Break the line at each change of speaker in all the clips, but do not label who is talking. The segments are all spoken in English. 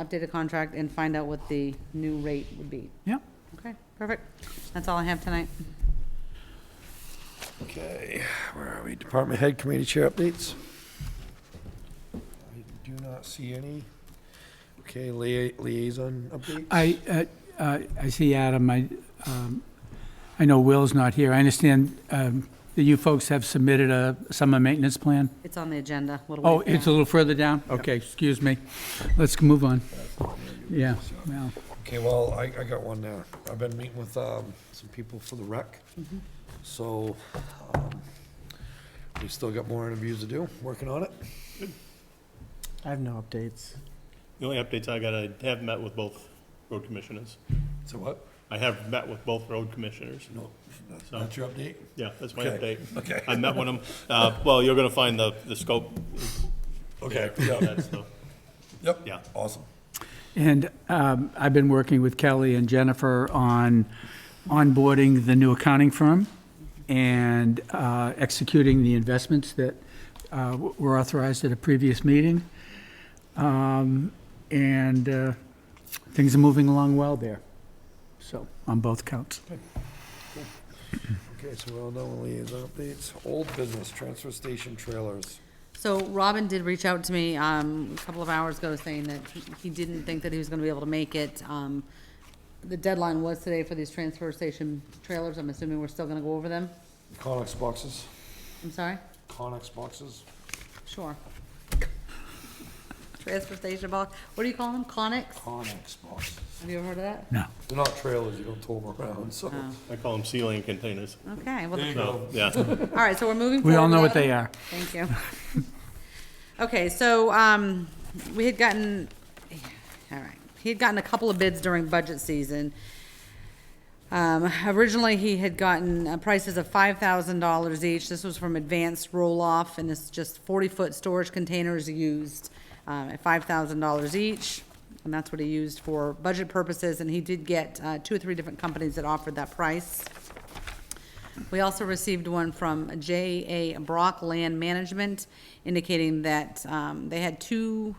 update the contract and find out what the new rate would be.
Yeah.
Okay, perfect. That's all I have tonight.
Okay, where are we? Department head committee chair updates? I do not see any. Okay, lia- liaison update?
I, uh, uh, I see Adam, I, um, I know Will's not here. I understand um, that you folks have submitted a summer maintenance plan?
It's on the agenda. a little
Oh,
ways
it's a
down.
little further down? Okay, excuse me. Let's move on. Yeah, well,
Okay, well, I, I got one now. I've been meeting with, um, some people for the rec. So, um, we still got more interviews to do, working on it.
I have no updates.
The only updates I got, I have met with both road commissioners.
So what?
I have met with both road commissioners.
No, that's, that's your update?
Yeah, that's my
Okay,
update.
okay.
I met with them. Uh, well, you're gonna find the, the scope.
Okay,
Yeah,
yeah,
that's the-
yep.
Yeah.
Awesome.
and um, I've been working with Kelly and Jennifer on onboarding the new accounting firm and uh, executing the investments that uh, were authorized at a previous meeting. Um, And uh, things are moving along well there, so, on both counts.
Okay, so we're all done with liaison updates. Old business, transfer station trailers.
So Robin did reach out to me, um, a couple of hours ago saying that he- he didn't think that he was gonna be able to make it. Um, the deadline was today for these transfer station trailers. I'm assuming we're still gonna go over them.
Conex boxes,
I'm sorry?
Conex boxes.
Sure. Transfer station box, what do you call them? Conics?
Conex boxes.
Have you ever heard of that?
No.
They're not trailers, you don't tow them around, so.
Oh.
I call them ceiling containers.
Okay, well,
There you
So,
go.
yeah.
all right, so we're moving forward.
We all know what
without-
they are.
Thank you. Okay, so, um, we had gotten, all right, he had gotten a couple of bids during budget season. Um, originally, he had gotten uh, prices of five thousand dollars each. This was from Advanced Roll-Off, and it's just forty-foot storage containers used, um, at five thousand dollars each. And that's what he used for budget purposes, and he did get, uh, two or three different companies that offered that price. We also received one from J.A. Brock Land Management indicating that um, they had two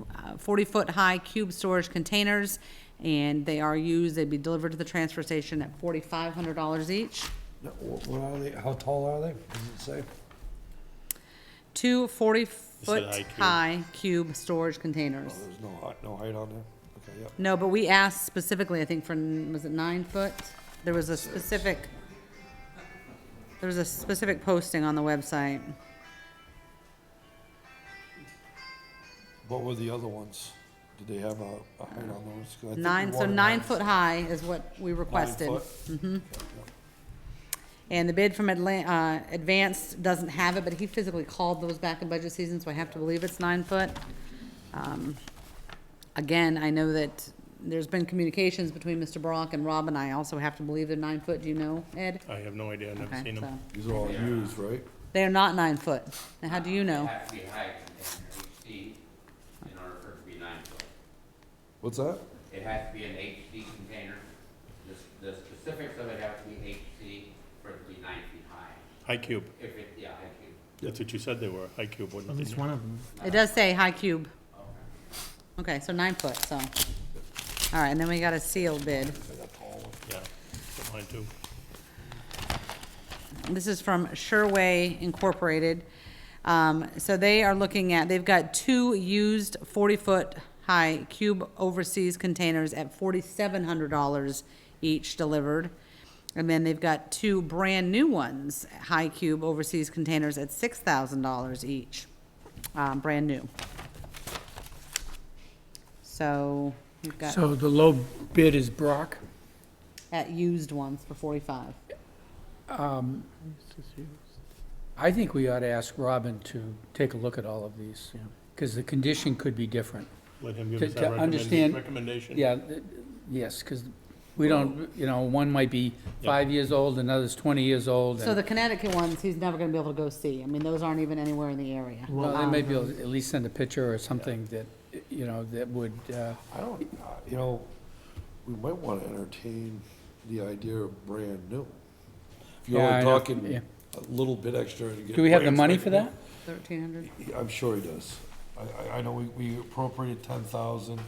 40-foot-high cube storage containers, and they are used, they'd be delivered to the transfer station at $4,500 each.
No, wh- What are they, how tall are they? Does it say?
Two
high cube.
40-foot-high cube storage containers.
Oh, There's no height, no height on there? Okay, yep.
No, but we asked specifically, I think for, n- was it nine foot? There was a specific, there was a specific posting on the website.
What were the other ones? Did they have a, a height on those? 'Cause I think we
Nine, so
wanted
nine
nine-
foot high is what we
nine
requested.
foot.
And the bid from Atlan, uh, Advanced doesn't have it, but he physically called those back in budget season, so I have to believe it's nine foot. Um, Again, I know that there's been communications between Mr. Brock and Rob, and I also have to believe they're nine foot, do you know, Ed?
I have no idea. I've never
Okay,
seen them.
so-
These are all used, right?
They are not nine foot. Now, how do you know?
Have to be higher container, eight feet, in order for it to be nine foot.
What's that?
It has to be an HD container. The, s- the specifics of it have to be HD for it to be nine feet high.
High cube.
If it, yeah, I could,
That's what you said they were. High cube,
At
wasn't
least
it?
one of them.
It does say high cube. Okay, so nine foot, so. All right, and then we got a sealed bid.
Yeah. Got Mine too.
This is from Sherway Incorporated. Um, So they are looking at, they've got two used 40-foot-high cube overseas containers at $4,700 each delivered. And then they've got two brand-new ones, high cube overseas containers at $6,000 each, um, brand new. So we've got,
So the low bid is Brock.
at used ones for 45.
Um, I think we ought to ask Robin to take a look at all of these, because the condition could be different.
Let him give
To-
us
to
that
understand-
recommend- recommendation.
Yeah, th- yes, because we don't, you know, one might be
Yeah.
five years old, another's 20 years old.
So the Connecticut ones, he's never gonna be able to go see. I mean, those aren't even anywhere in the area.
Well, they may be able to at least send a picture or something that, you know, that would, uh,
I don't, uh, you know, we might want to entertain the idea of brand new. If you're
Yeah, I
only
know,
talking
yeah.
a little bit extra to get.
do we have the
brand
money
new.
for that?
Thirteen hundred?
I'm sure he does. I, I, I know we, we appropriated ten thousand